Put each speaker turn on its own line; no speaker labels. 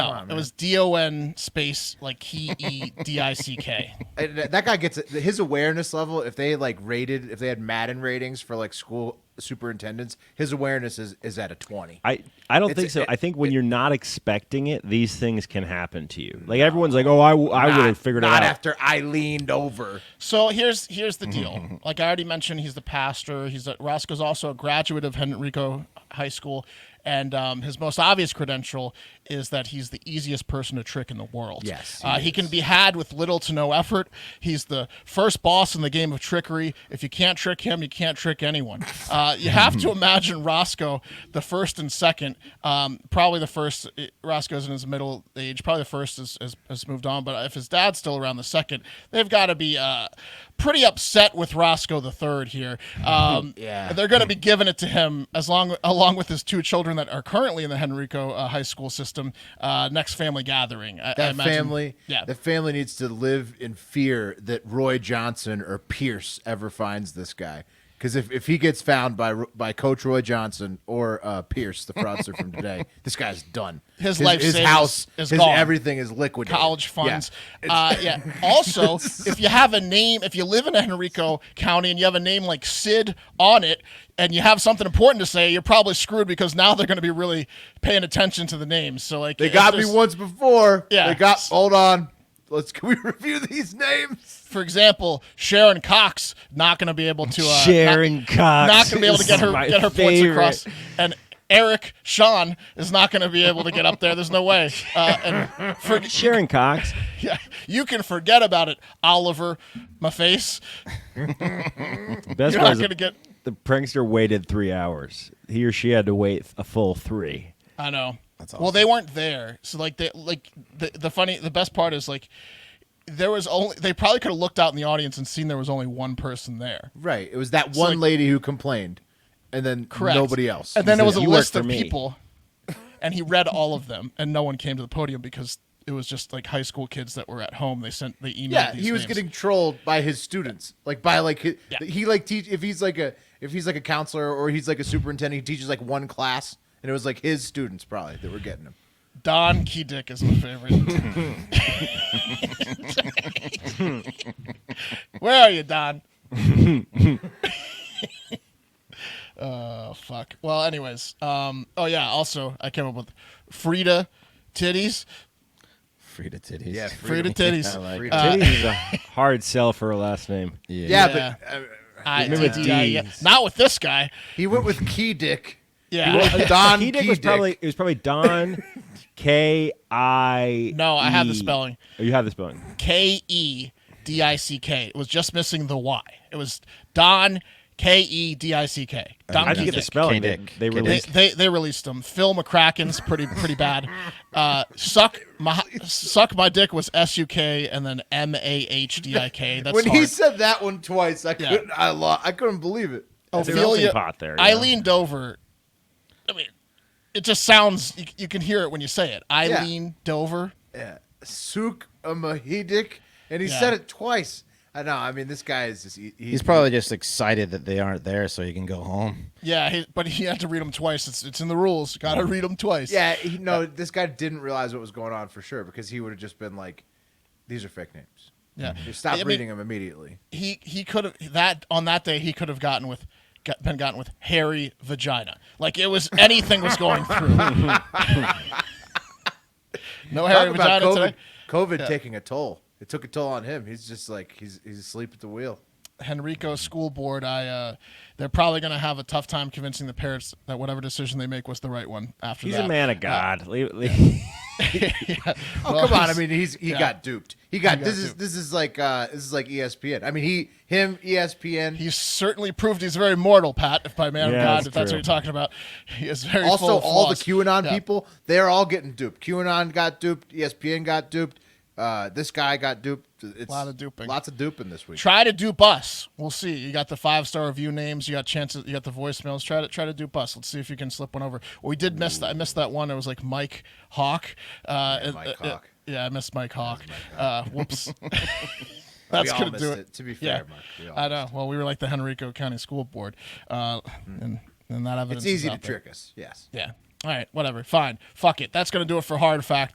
No, Oh, it was D O N space like K E D I C K.
And that that guy gets it. his awareness level. If they like rated, if they had Madden ratings for like school superintendents, his awareness is, is at a twenty.
I, I don't
It's-
think so.
it-
I think when you're not expecting it, these things can happen to you. Like everyone's like, oh, I, w- I would have figured it
not
out.
after I leaned over.
So here's here's the deal. Like I already mentioned, he's the pastor. He's a, Roscoe's also a graduate of Henrico High School, and um, his most obvious credential is that he's the easiest person to trick in the world.
Yes, he
uh, he can be had with little to no effort. He's the first boss in the game of trickery. If you can't trick him, you can't trick anyone. Uh, you have to imagine Roscoe, the first and second. Um, probably the first. eh, Roscoe's in his middle age. Probably the first is, is, has moved on. But if his dad's still around, the second, they've got to be uh, pretty upset with Roscoe the third here. Um,
Yeah.
they're going to be giving it to him as long along with his two children that are currently in the Henrico uh, High School system. Uh, next family gathering. I- I
That
imagine-
family,
Yeah.
the family needs to live in fear that Roy Johnson or Pierce ever finds this guy. Because if, if he gets found by Ro- by Coach Roy Johnson or uh, Pierce, the fraudster from today, this guy's done.
His life
his
savings
house,
is
his
gone.
everything is liquidated.
college funds.
Yeah.
Uh, yeah. Also, if you have a name, if you live in Henrico County and you have a name like Sid on it, and you have something important to say, you're probably screwed because now they're going to be really paying attention to the names. So like,
they
it's
got
just-
me once before.
Yeah.
they got. Hold on, let's can we review these names?
For example, Sharon Cox not going to be able to uh, not-
Sharon
not
Cox
going to be able to get
is
her
my
get her
favorite.
points across and. Eric Sean is not going to be able to get up there. There's no way. Uh, and for,
Sharon Cox.
yeah, you can forget about it, Oliver. My face.
The best
You're
part
not
is
going to get.
the prankster waited three hours. He or she had to wait a full three.
I know. That's awesome. Well, they weren't there, so like they like the the funny the best part is like there was only they probably could have looked out in the audience and seen there was only one person there.
Right, it was that one
like-
lady who complained, and then
Correct.
nobody else.
And then it
said,
was a
"You work
list
for
of
me."
people, and he read all of them, and no one came to the podium because it was just like high school kids that were at home. They sent they emailed.
Yeah,
these
he was
names.
getting trolled by his students, like by like his,
Yeah.
he like teach if he's like a if he's like a counselor or he's like a superintendent, he teaches like one class, and it was like his students probably that were getting him.
Don Key Dick is my favorite. Where are you, Don? oh fuck. Well, anyways, um, oh yeah. Also, I came up with Frida titties.
Frida titties.
Yeah,
Frida titties.
I like
Frida.
it.
Uh,
Titty is a hard sell for her last name.
Yeah.
Yeah,
Yeah.
but uh,
I,
Remember
T D I E.
D's.
Not with this guy.
he went with Key Dick.
Yeah.
Don
Key
Key
Dick was
Dick.
probably it was probably Don K I. E.
No, I have the spelling.
Oh, you have the spelling.
K E D I C K. It was just missing the Y. It was Don K E D I C K. Don
I
Key
didn't get the
Dick.
spelling. They,
K-Dick.
they
K-Dick.
They,
released.
they they released them. Phil McCracken's pretty pretty bad. Uh, suck my suck my dick was S U K and then M A H D I K. That's
when
hard.
he said that one twice, I
Yeah.
couldn't. I lo- I couldn't believe it.
There's a melting pot there,
I
yeah.
leaned over. I mean, it just sounds. You, you can hear it when you say it. I
Yeah.
leaned over.
Yeah. uh, Suk Amahidik, and he
Yeah.
said it twice. I know. I mean, this guy is just. He,
He's probably just excited that they aren't there so he can go home.
Yeah, he, but he had to read them twice. It's it's in the rules. Got to read them twice.
Yeah, he, no, this guy didn't realize what was going on for sure because he would have just been like, "These are fake names."
yeah.
Just stop
I mean,
reading them immediately.
he he could have that on that day he could have gotten with got, been gotten with hairy vagina like it was anything was going through no
Talk
hairy
about
vagina
COVID,
today
COVID taking a toll. It took a toll on him. He's just like he's he's asleep at the wheel.
henrico school board i uh they're probably going to have a tough time convincing the parents that whatever decision they make was the right one after
He's
that
a man of God. Leave- leave-
Oh
Well,
come on! I
he's-
mean, he's he
yeah.
got duped. He got,
got
this is
duped.
this is like uh this is like ESPN. I mean, he him E ESPN.
He's certainly proved he's very mortal, Pat, if by man
Yeah,
of God,
that's
if that's
true.
what you're talking about. He is very full
also,
of
all the
flaws.
QAnon
Yeah.
people, they're all getting duped. QAnon got duped. E ESPN got duped. Uh, this guy got duped. It's
Lot of duping.
Lots of duping this week.
Try to dupe us. We'll see. You got the five star review names. You got chances. You got the voicemails. Try to try to dupe us. Let's see if you can slip one over. We did miss that. I missed that one. It was like Mike Hawk. Uh, yeah,
Mike Hawk.
yeah, I missed Mike Hawk. Uh, whoops. That's
all
gonna
missed
do
it,
it.
to be fair, Mark. We all
I know. Well, we were like the Henrico County School Board, uh, and and that evidence.
Hmm. It's
is
easy to
out there.
trick us. Yes.
Yeah. All right. Whatever. Fine. Fuck it. That's gonna do it for hard fact.